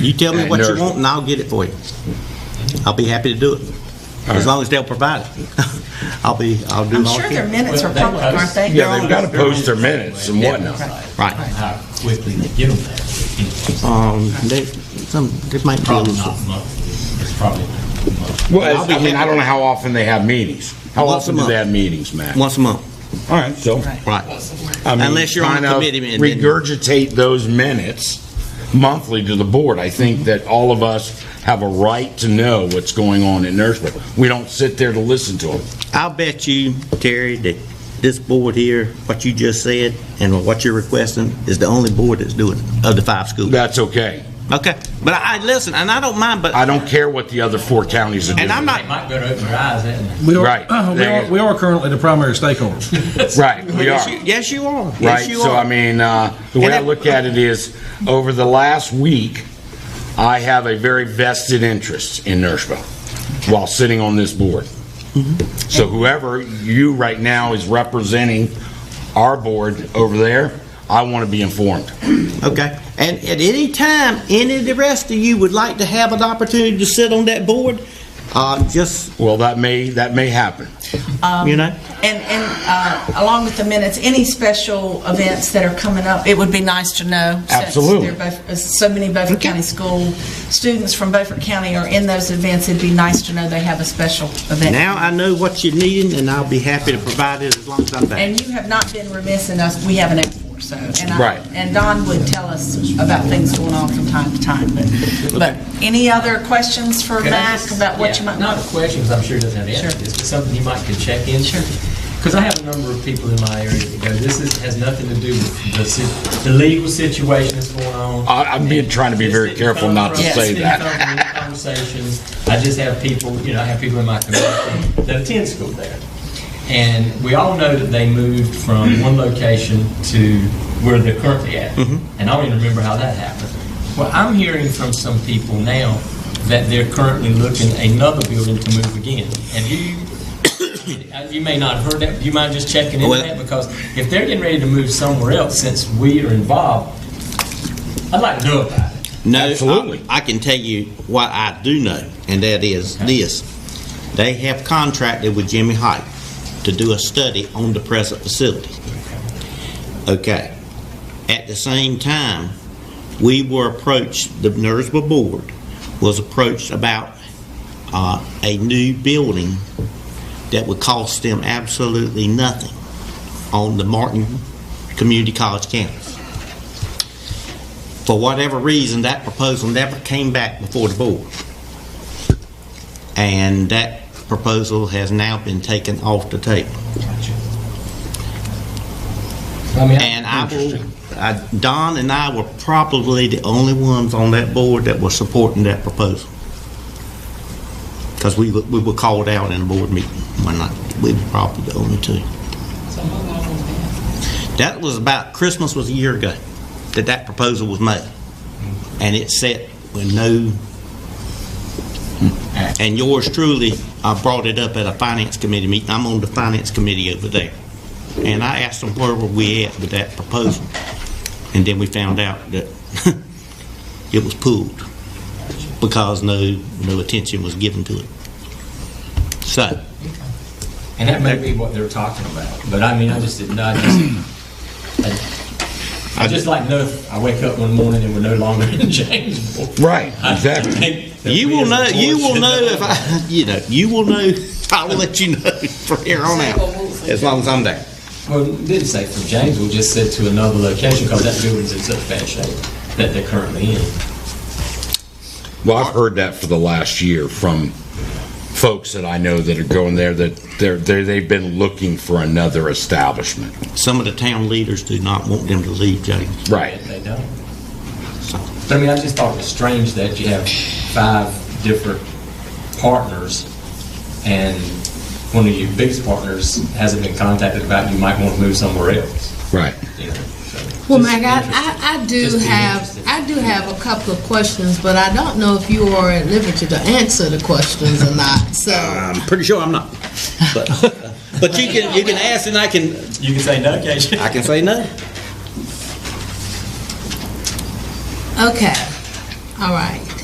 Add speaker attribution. Speaker 1: You tell me
Speaker 2: And
Speaker 1: what you
Speaker 2: there's-
Speaker 1: want, and I'll get it for you. I'll be happy to do it, as long as they'll provide it. I'll be, I'll do it
Speaker 3: I'm
Speaker 1: all.
Speaker 3: sure their minutes are public, aren't they?
Speaker 2: Yeah, they've got to post their minutes and whatnot.
Speaker 1: Right.
Speaker 4: How quickly they get them there.
Speaker 1: Um, they, some, they might be a
Speaker 4: Probably
Speaker 1: little.
Speaker 4: not monthly, it's probably monthly.
Speaker 2: Well, I mean, I don't know how often they have meetings. How
Speaker 1: Once a
Speaker 2: often do they
Speaker 1: month.
Speaker 2: have meetings, Matt?
Speaker 1: Once a month,
Speaker 2: All right, so.
Speaker 1: right.
Speaker 2: I mean,
Speaker 1: Unless you're on a
Speaker 2: kind of
Speaker 1: committee and then-
Speaker 2: Regurgitate those minutes monthly to the board. I think that all of us have a right to know what's going on in Nurseville. We don't sit there to listen to them.
Speaker 1: I'll bet you, Terry, that this board here, what you just said, and what you're requesting, is the only board that's doing it, of the five schools.
Speaker 2: That's okay.
Speaker 1: Okay, but I, I- listen, and I don't mind, but,
Speaker 2: I don't care what the other four counties are doing.
Speaker 1: and I'm
Speaker 4: They
Speaker 1: not,
Speaker 4: might better open their eyes, hadn't they?
Speaker 5: We are, uh-huh,
Speaker 2: Right.
Speaker 5: we are, we are currently the primary stakeholder.
Speaker 2: Right, we are.
Speaker 1: yes, you- yes, you are,
Speaker 2: Right,
Speaker 1: yes, you
Speaker 2: so I
Speaker 1: are.
Speaker 2: mean, uh, the way
Speaker 1: And
Speaker 2: I
Speaker 1: that-
Speaker 2: look at it is, over the last week, I have a very vested interest in Nourishville while sitting on this board.
Speaker 1: Mm-hmm.
Speaker 2: So whoever you right now is representing our board over there, I want to be informed.
Speaker 1: Okay, and at any time, any of the rest of you would like to have an opportunity to sit on that board, uh, just,
Speaker 2: Well, that may, that may happen.
Speaker 1: you know?
Speaker 3: And, and uh, along with the minutes, any special events that are coming up, it would be nice to know. since
Speaker 2: Absolutely.
Speaker 3: there are Beauf- So many Beaufort
Speaker 1: Okay.
Speaker 3: County school, students from Beaufort County are in those events, it'd be nice to know they have a special event.
Speaker 1: Now I know what you're needing, and I'll be happy to provide it as long as I'm back.
Speaker 3: And you have not been remiss in us, we haven't asked for, so. and I-
Speaker 2: Right.
Speaker 3: And Don would tell us about things going on from time to time, but, but any other questions for
Speaker 4: Can I
Speaker 3: Mac
Speaker 4: just-
Speaker 3: about what
Speaker 4: yeah,
Speaker 3: you might?
Speaker 4: Not a question, because I'm sure he doesn't have
Speaker 3: Sure.
Speaker 4: answers, but something you might could check in. Sure. Because I have a number of people in my area that go, this is, has nothing to do with the, si- the legal situation that's going on.
Speaker 2: I- I'm being- trying to be
Speaker 4: This
Speaker 2: very
Speaker 4: didn't
Speaker 2: careful
Speaker 4: come
Speaker 2: not to
Speaker 4: from-
Speaker 2: say
Speaker 4: this
Speaker 2: that.
Speaker 4: didn't come from Conversations, I just have people, you know, I have people in my community that attend school there. And we all know that they moved from one location to where they're currently at. And I don't even remember how that happened. Well, I'm hearing from some people now that they're currently looking at another building to move again. Have you, uh, you may not have heard that, do you mind just checking into
Speaker 1: Well-
Speaker 4: that? Because if they're getting ready to move somewhere else, since we are involved, I'd like to know about it.
Speaker 1: No,
Speaker 2: Absolutely.
Speaker 1: I I can tell you what I do know, and that is this. They have contracted with Jimmy Hike to do a study on the present facility. Okay. At the same time, we were approached, the Nursba Board was approached about uh, a new building that would cost them absolutely nothing on the Martin Community College campus. For whatever reason, that proposal never came back before the board. And that proposal has now been taken off the table.
Speaker 4: I mean,
Speaker 1: And I will, I- Don and I were probably the only ones on that board that were supporting that proposal. Because we were, we were called out in a board meeting one night. We were probably the only two. That was about, Christmas was a year ago that that proposal was made. And it set with no, and yours truly, I brought it up at a finance committee meeting. I'm on the finance committee over there. And I asked them where were we at with that proposal? And then we found out that it was pulled because no, no attention was given to it. So,
Speaker 4: And that may be what they're talking about, but I mean, I just didn't, know, I just, I- I'd just like to know if I wake up one morning and we're no longer in James.
Speaker 2: Right,
Speaker 4: I
Speaker 2: exactly.
Speaker 4: think that
Speaker 1: you
Speaker 4: we
Speaker 1: will know,
Speaker 4: as a board
Speaker 1: you will
Speaker 4: should
Speaker 1: know if I, you know, you will know, I will let you know from here on out, as long as I'm there.
Speaker 4: Well, it didn't say from James, we just said to another location, because that building's in such bad shape that they're currently in.
Speaker 2: Well, I've heard that for the last year from folks that I know that are going there, that they're, they're- they've been looking for another establishment.
Speaker 1: Some of the town leaders do not want them to leave, James.
Speaker 2: Right.
Speaker 4: They don't. But I mean, I just thought it was strange that you have five different partners, and one of your biggest partners hasn't been contacted about you might want to move somewhere else.
Speaker 2: Right.
Speaker 4: you know, so
Speaker 6: Well,
Speaker 4: just
Speaker 6: Mac, I-
Speaker 4: interesting.
Speaker 6: I, I do
Speaker 4: Just being
Speaker 6: have,
Speaker 4: interested.
Speaker 6: I do have a couple of questions, but I don't know if you are at liberty to answer the questions or not, so.
Speaker 1: I'm pretty sure I'm not. But, uh, but you can, you can ask and I can,
Speaker 4: You can say no, Keisha.
Speaker 1: I can say no.
Speaker 6: Okay. All right.